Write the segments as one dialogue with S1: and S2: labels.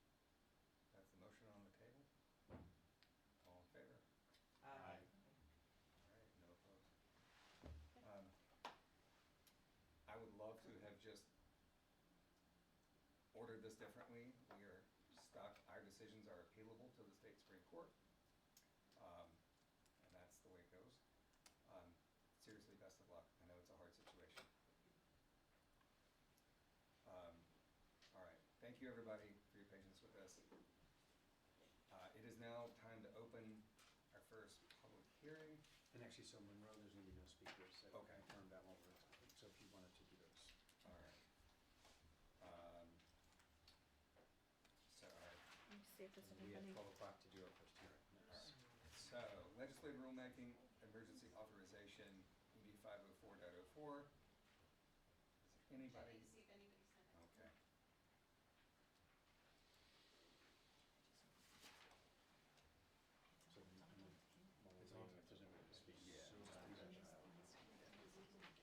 S1: uh,
S2: Um, just ordered this differently. We are stuck, our decisions are appealable to the state Supreme Court. Um, and that's the way it goes. Um, seriously, best of luck. I know it's a hard situation. Um, all right, thank you, everybody, for your patience with us. Uh, it is now time to open our first public hearing.
S3: And actually, so Monroe, there's gonna be no speakers, so
S2: Okay.
S3: I confirmed that one more time, so if you wanted to do those.
S2: All right. Um, so, all right.
S4: Let me see if this will
S3: We
S4: be
S3: have
S4: funny.
S3: twelve o'clock to do our first hearing.
S2: All right.
S3: Yes.
S2: Um, So legislative rulemaking, emergency authorization, ED five oh four dot oh four. Anybody?
S5: Checking to see if anybody sent
S2: Okay.
S5: it.
S3: So, I'm gonna- while we're waiting, if
S6: It's on.
S3: there's anybody to speak.
S2: Yeah.
S3: so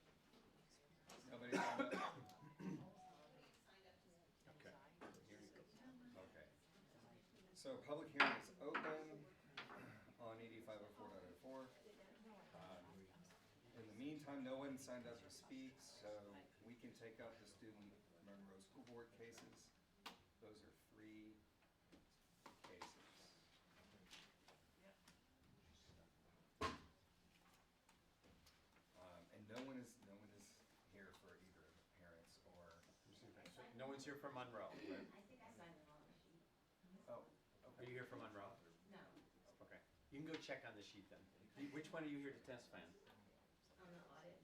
S3: just do that.
S2: Nobody signed up?
S5: Please sign up to
S3: Okay. Here
S5: speak.
S3: you go.
S2: Okay. So public hearing is open on ED five oh four dot oh four. Um, In the meantime, no one signed up to speak, so we can take up the student Monroe School Board cases. Those are three cases. Um, and no one is, no one is here for either of the parents or,
S3: Just do that. So No one's here from Monroe,
S1: I
S3: right?
S1: think I signed the wrong sheet.
S2: oh,
S3: Are you here from Monroe?
S1: No,
S3: Okay. You can go check on the sheet then. You- Which one are you here to testify on?
S1: on the audit.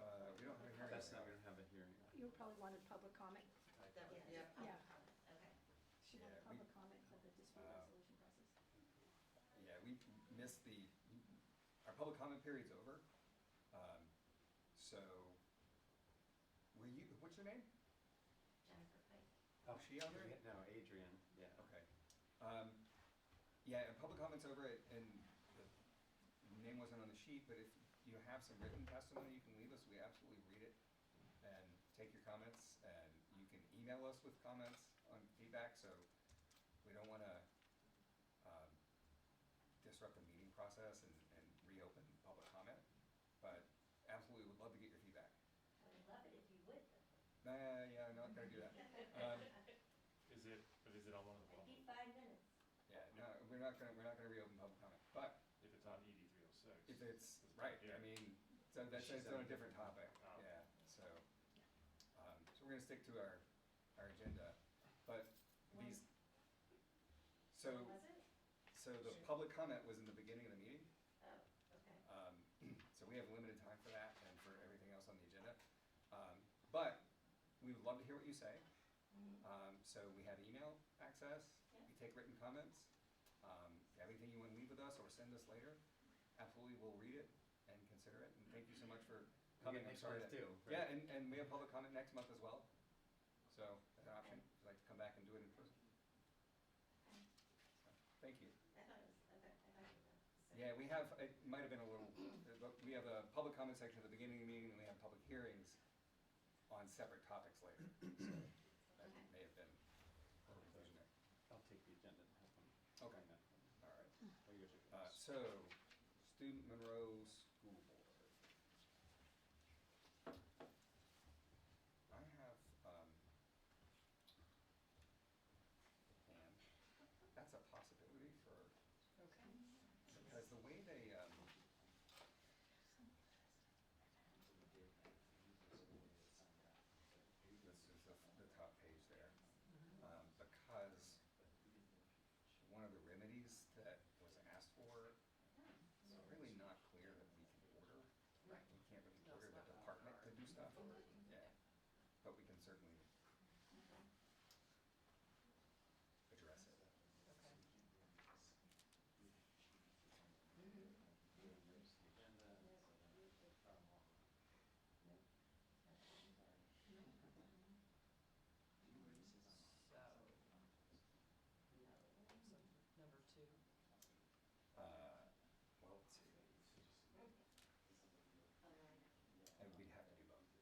S2: uh, we don't have a hearing.
S3: That's not,
S2: right now.
S3: we don't have a hearing.
S4: You probably wanted public comment.
S1: That was, yeah.
S4: Yeah.
S1: Okay.
S4: She
S2: Yeah, we-
S4: wanted public comment for the dispute
S2: Uh,
S4: resolution process.
S2: Yeah, we missed the, our public comment period's over. Um, so, will you, what's your name?
S1: Jennifer Pike.
S3: Oh,
S2: she on there?
S3: No, Adrian, yeah.
S2: Okay. Um, yeah, and public comment's over it, and the name wasn't on the sheet, but if you have some written testimony, you can leave us, we absolutely read it and take your comments, and you can email us with comments on feedback, so we don't wanna, um, disrupt the meeting process and, and reopen public comment, but absolutely would love to get your feedback.
S1: I would love it if you would.
S2: Nah, yeah, I'm not gonna do that. Um,
S6: Is it, but is it on one of the,
S1: I need
S6: well,
S1: five minutes.
S2: yeah, no, we're not gonna, we're not gonna reopen public comment, but
S6: if it's on ED three oh six?
S2: If it's, right, I mean, so that's,
S3: She's
S2: it's on a
S3: on a
S2: different
S3: different-
S2: topic,
S6: Oh.
S2: yeah, so. Um, so we're gonna stick to our, our agenda, but these, so,
S1: Was it?
S2: so the public comment was in the beginning of the meeting.
S1: Oh, okay.
S2: Um, so we have limited time for that and for everything else on the agenda. Um, but we would love to hear what you say.
S3: Mm-hmm.
S1: Mhm.
S2: Um, so we have email access, we take written comments. Um, if you have anything you wanna leave with us or send us later, absolutely, we'll read it and consider it, and thank you so much for
S3: get
S2: coming, I'm
S3: next
S2: sorry.
S3: month
S2: that-
S3: too, right?
S2: Yeah, and, and we have public comment next month as well, so that's an option, if you'd like to come back and do it in person,
S1: Okay.
S2: so, thank you.
S1: I thought it was, okay, I thought it was.
S2: Yeah, we have, it might have been a little, but we have a public comment section at the beginning of the meeting, and we have public hearings on separate topics later, so that may have been a little confusion there.
S3: I'll take the agenda and have them.
S2: Okay. All right.
S3: Oh, yours are
S2: Uh,
S3: yours.
S2: so, student Monroe School Board. I have, um, and that's a possibility for,
S4: Okay.
S2: because the way they, um, this is the, the top page there. Um, because one of the remedies that was asked for it's really not clear that we can order,
S1: Right.
S2: we can't really order the department to do stuff, yeah, but we can certainly
S1: Mm-hmm.
S2: Uh,